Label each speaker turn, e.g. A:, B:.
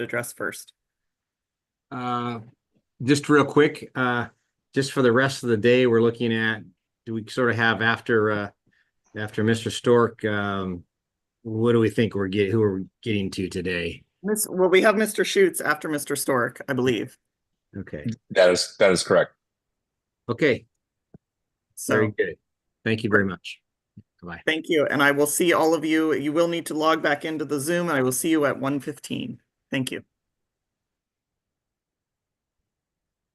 A: address first?
B: Uh, just real quick, uh, just for the rest of the day, we're looking at, do we sort of have after, uh, after Mr. Stork, um, what do we think we're getting, who are getting to today?
A: Miss, well, we have Mr. Schutz after Mr. Stork, I believe.
B: Okay,
C: That is, that is correct.
B: okay,
A: So,
B: very good. Thank you very much. Bye.
A: thank you, and I will see all of you. You will need to log back into the Zoom, and I will see you at one fifteen. Thank you.